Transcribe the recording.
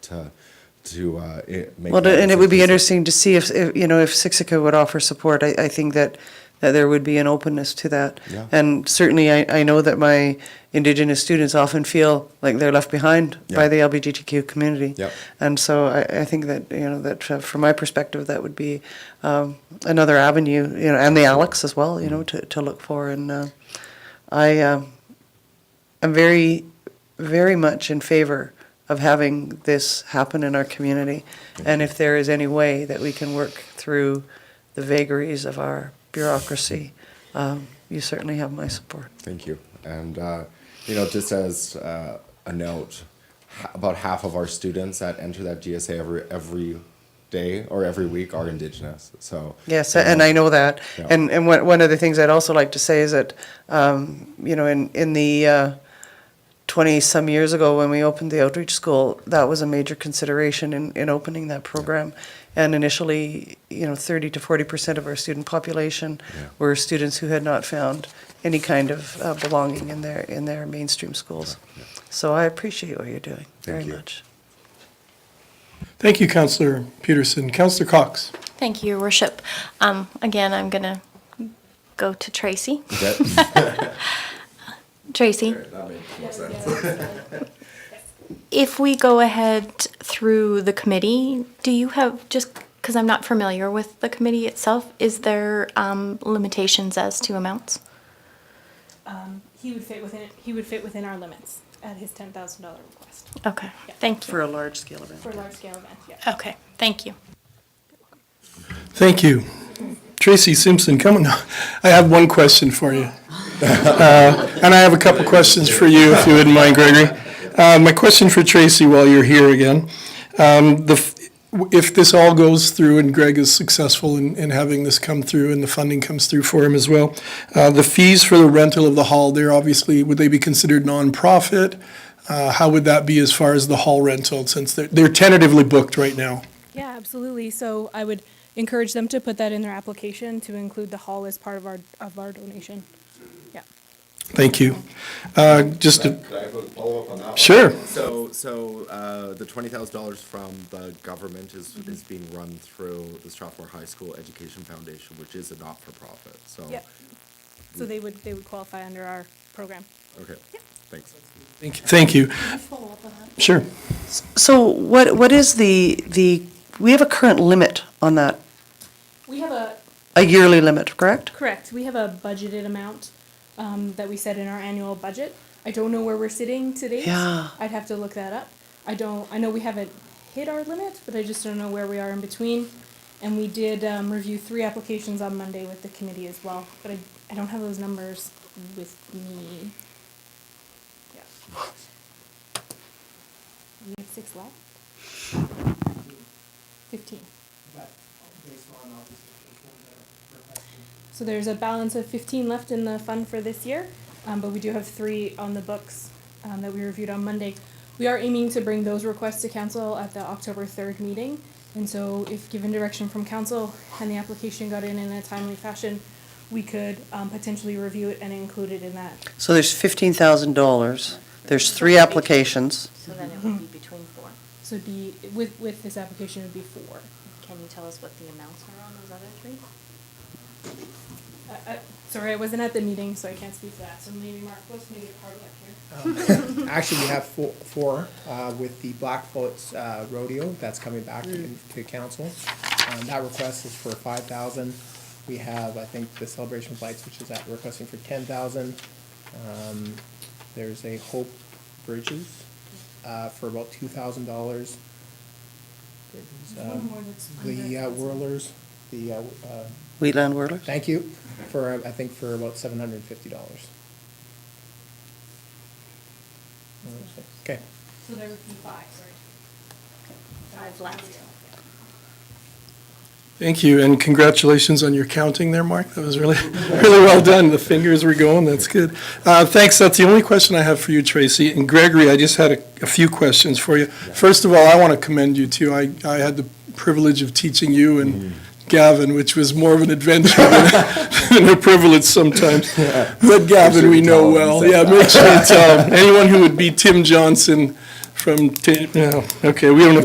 to, to uh, i- make. Well, that and it would be into- interesting to see if, if, you know, if Sixica would offer support. I, I think that, that there would be an openness to that. Yeah. And certainly, I, I know that my Indigenous students often feel like they're left behind Yeah. by the LGBTQ community. Yep. And so I, I think that, you know, that uh, from my perspective, that would be um, another avenue, you know, and the Alex as Mm. well, you know, to, to look for. And uh, I, um, I'm very, very much in favor of having this happen in our community. And if there is any way that we can work through the vagaries of our bureaucracy, um, you certainly have my support. Thank you. And, uh, you know, just as uh, a note, ha- about half of our students that enter that GSA every, every day or every week are Indigenous. So, Yes, uh, and I know that. Yeah. And, and one, one of the things I'd also like to say is that, um, you know, in, in the, uh, twenty-some years ago, when we opened the outreach school, that was a major consideration in, in opening that program. And initially, you know, thirty to forty percent of our student population Yeah. were students who had not found any kind of uh, belonging in their, in their mainstream schools. So I appreciate what you're doing very you. much. Thank you, Counselor Peterson. Counselor Cox. Thank you, Your Worship. Um, again, I'm going to go to Tracy. that, Tracy, if we go ahead through the committee, do you have, just because I'm not familiar with the committee itself, is there um, limitations as to amounts? He would fit within, he would fit within our limits at his ten thousand dollar request Okay, thank For you. a large-scale event. for large scale events, yeah. Okay, thank you. Thank you. Tracy Simpson, come on. I have one question for you. Uh, And I have a couple questions for you, if you wouldn't mind, Gregory. Uh, My question for Tracy while you're here again. Um, the f- If this all goes through and Greg is successful in in having this come through and the funding comes through for him as well, uh, the fees for the rental of the hall, they're obviously, would they be considered nonprofit? Uh, How would that be as far as the hall rental, since they're they're tentatively booked right now? Yeah, absolutely. So I would encourage them to put that in their application to include the hall as part of our, of our donation. Yeah. Thank you. Uh, Just to Could I have a follow-up on that one? Sure. So, so uh, the twenty thousand dollars from the government is, Mm-hmm. is being run through the Strathmore High School Education Foundation, which is a not-for-profit, so. Yep. So they would, they would qualify under our program. Okay, thanks. Thank you. Thank you. Sure. So what, what is the, the, we have a current limit on that, We have a, a yearly limit, correct? Correct. We have a budgeted amount um, that we set in our annual budget. I don't know where we're sitting today. Yeah. I'd have to look that up. I don't, I know we haven't hit our limit, but I just don't know where we are in between. And we did um, review three applications on Monday with the committee as well, but I, I don't have those numbers with me. Yeah. We have six left? Fifteen. So there's a balance of fifteen left in the fund for this year, um, but we do have three on the books, um, that we reviewed on Monday. We are aiming to bring those requests to council at the October third meeting, and so if given direction from council and the application got in in a timely fashion, we could, um, potentially review it and include it in that. So there's fifteen thousand dollars, there's three applications. So then it would be between four. So it'd be, with, with this application, it'd be four. Can you tell us what the amounts are on those other three? I, I, Uh, sorry, I wasn't at the meeting, so I can't speak to that, so maybe Mark was maybe part of that here. Actually, we have four, four, uh, with the Blackfoot's, uh, rodeo, that's coming back to, to council. Um, that request is for five thousand. We have, I think, the Celebration of Lights, which is at, requesting for ten thousand. Um, there's a Hope Bridges, uh, for about two thousand dollars. The uh, Whirlers, the, uh, uh, Wheatland Whirlers? thank you, for, uh, I think, for about seven hundred and fifty dollars. Okay. So there would be five, sorry. Five left. Thank you, and congratulations on your counting there, Mark. That was really, really well done. The fingers were going, that's good. Uh, Thanks, that's the only question I have for you, Tracy. And Gregory, I just had a a few questions for you. First of all, I want to commend you too. I, I had the privilege of teaching you and Gavin, which was more of an adventure than a privilege sometimes. But Gavin, we know well. Yeah, make sure you tell him. Anyone who would be Tim Johnson from, Ti- yeah, okay, we don't have